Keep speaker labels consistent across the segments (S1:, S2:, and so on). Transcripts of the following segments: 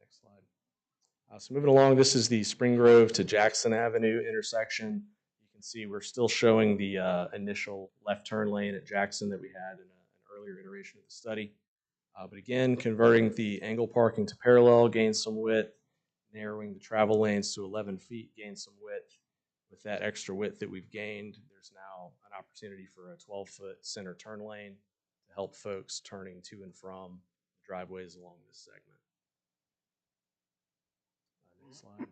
S1: Next slide. Uh, so moving along, this is the Spring Grove to Jackson Avenue intersection. You can see we're still showing the uh, initial left turn lane at Jackson that we had in a- an earlier iteration of the study. Uh, but again, converting the angle parking to parallel gains some width, narrowing the travel lanes to 11 feet gains some width. With that extra width that we've gained, there's now an opportunity for a 12 foot center turn lane to help folks turning to and from driveways along this segment. Uh, next slide.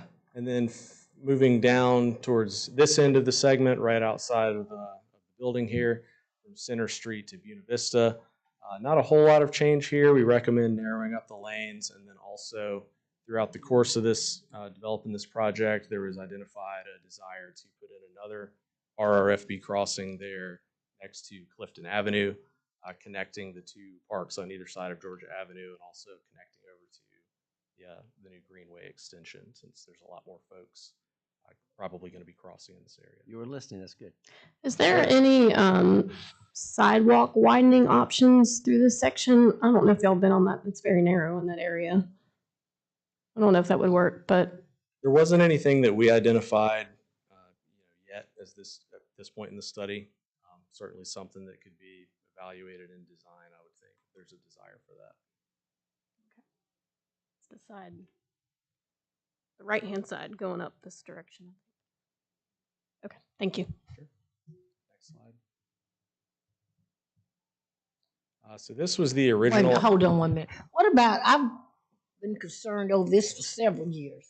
S1: Mm-hmm. And then f- moving down towards this end of the segment, right outside of the, of the building here, from Center Street to Buena Vista. Uh, not a whole lot of change here. We recommend narrowing up the lanes and then also throughout the course of this, uh, developing this project, there was identified a desire to put in another RRFB crossing there next to Clifton Avenue, uh, connecting the two parks on either side of Georgia Avenue and also connecting over to yeah, the new Greenway extension, since there's a lot more folks uh, probably going to be crossing in this area.
S2: You were listening, that's good.
S3: Is there any um, sidewalk widening options through this section? I don't know if y'all been on that. It's very narrow in that area. I don't know if that would work, but
S1: There wasn't anything that we identified, uh, you know, yet as this at this point in the study. Um, certainly something that could be evaluated in design. I would think if there's a desire for that.
S3: it's the side, the right hand side going up this direction. Okay, thank you.
S1: Next slide. Uh, so this was the
S4: Wait a
S1: original.
S4: minute, hold on one minute. What about, I've been concerned over this for several years.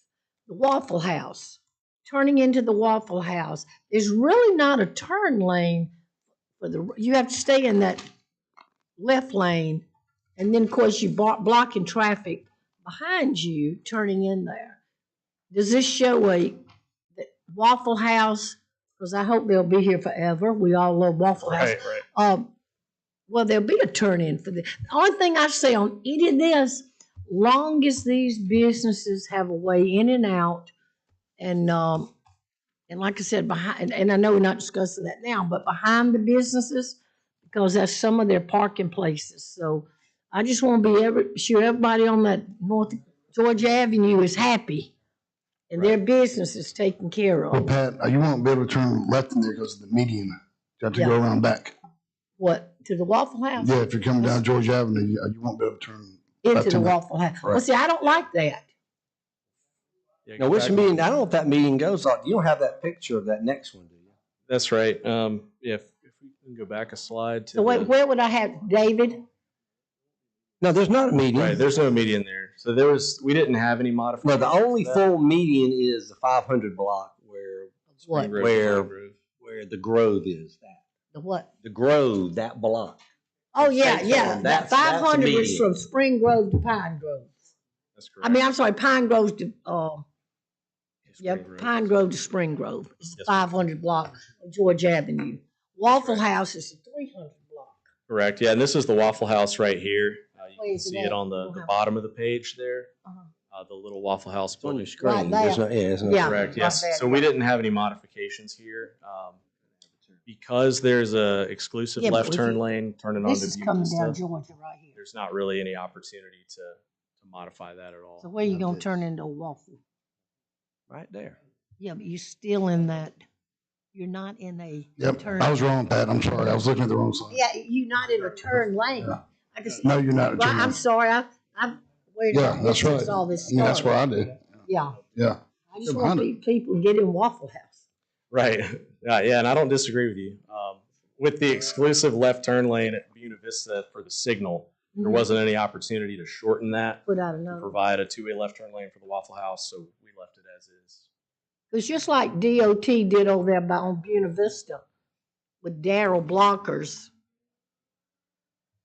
S4: The Waffle House, turning into the Waffle House, there's really not a turn lane for the, you have to stay in that left lane. And then, of course, you block, blocking traffic behind you turning in there. Does this show a that Waffle House? Because I hope they'll be here forever. We all love Waffle House.
S1: right.
S4: Um, well, there'll be a turn in for this. The only thing I say on any of this, long as these businesses have a way in and out, and um, and like I said, behind, and I know we're not discussing that now, but behind the businesses, because that's some of their parking places. So I just want to be every, sure everybody on that North Georgia Avenue is happy, and their business is taken care
S5: Well,
S4: of.
S5: Pat, uh, you won't be able to turn left in there because of the median. You have to go
S4: Yeah.
S5: around back.
S4: What to the Waffle House?
S5: Yeah, if you're coming down George Avenue, you uh, you won't be able to turn.
S4: into
S5: That's
S4: the
S5: in the-
S4: Waffle House. Well,
S5: Right.
S4: see, I don't like that.
S1: Yeah,
S2: Now, which
S1: exactly.
S2: meeting, I don't know if that meeting goes on, you don't have that picture of that next one, do you?
S1: That's right. Um, if, if we can go back a slide to
S4: So
S1: the-
S4: wait, where would I have David?
S2: No, there's not a meeting.
S1: Right, there's no median there. So there was, we didn't have any modifications.
S2: No, the only
S1: to that.
S2: full median is the five hundred block where,
S4: What?
S1: Grove,
S2: Where-
S1: Grove.
S2: where the Grove is.
S4: The what?
S2: The Grove, that block.
S4: Oh, yeah,
S2: State
S4: yeah.
S2: Farm,
S4: That
S2: that's- that's
S4: five
S2: a
S4: hundred is
S2: median.
S4: from Spring Grove to Pine Grove.
S1: That's
S4: I
S1: correct.
S4: mean, I'm sorry, Pine Grove to, um, yeah,
S1: Spring Grove.
S4: Pine Grove to Spring Grove. It's the
S1: Yes, ma'am.
S4: five hundred block of George Avenue. Waffle
S1: Correct.
S4: House is the three hundred block.
S1: Correct, yeah, and this is the Waffle House right here. Uh, You
S4: Where
S1: can
S4: is it
S1: see it
S4: at?
S1: on the,
S4: We'll
S1: the
S4: have-
S1: bottom of the page there,
S4: Uh-huh.
S1: uh, the little Waffle House
S2: It's on your
S1: building.
S2: screen.
S4: Right
S2: There's no, yeah, it's not.
S4: Yeah.
S1: Correct,
S4: my
S1: yes.
S4: bad.
S1: So we didn't have any modifications here. Um, Because there's a exclusive
S4: Yeah, but
S1: left
S4: we
S1: turn
S4: can-
S1: lane turning
S4: This
S1: onto
S4: is
S1: Buena
S4: coming down
S1: Vista,
S4: Georgia right here.
S1: there's not really any opportunity to, to modify that at all.
S4: So where you
S5: Yeah,
S4: gonna
S5: this-
S4: turn into a waffle?
S2: Right there.
S4: Yeah, but you're still in that, you're not in a.
S5: Yep,
S4: turn-
S5: I was wrong, Pat. I'm sorry. I was looking at the wrong sign.
S4: Yeah, you're not in a turn lane.
S5: Yeah.
S4: I just,
S5: No, you're not. a
S4: Well,
S5: turn
S4: I'm
S5: left.
S4: sorry, I, I'm. where did
S5: Yeah, that's right.
S4: All this
S5: I mean, that's what
S4: started?
S5: I do.
S4: Yeah,
S5: Yeah.
S4: I just want
S5: 700.
S4: pe- people to get in Waffle House.
S1: Right. Yeah, yeah, and I don't disagree with you. Um, with the exclusive left turn lane at Buena Vista for the signal,
S4: Mm-hmm.
S1: there wasn't any opportunity to shorten that,
S4: Put out
S1: to
S4: another,
S1: provide a two-way left turn lane for the Waffle House, so we left it as is.
S4: it's just like DOT did over there by on Buena Vista with Daryl Blockers.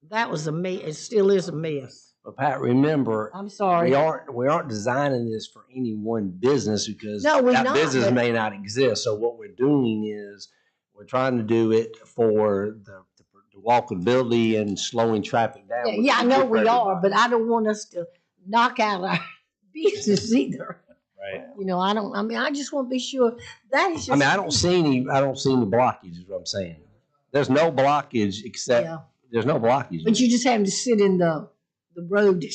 S4: That was a mess, it still is a mess.
S2: But Pat, remember,
S4: I'm
S2: we
S4: sorry.
S2: aren't, we aren't designing this for any one business because
S4: No, we're
S2: that
S4: not,
S2: business
S4: but-
S2: may not exist. So what we're doing is we're trying to do it for the, the walkability and slowing traffic down.
S4: Yeah,
S2: which
S4: yeah,
S2: is
S4: I
S2: good
S4: know
S2: for
S4: we are,
S2: everybody.
S4: but I don't want us to knock out our business either.
S1: Right.
S4: You know, I don't, I mean, I just want to be sure, that is just.
S2: I mean, I don't see any, I don't see any blockage is what I'm saying. There's no blockage except,
S4: Yeah.
S2: there's no blockage.
S4: But you just have to sit in the, the road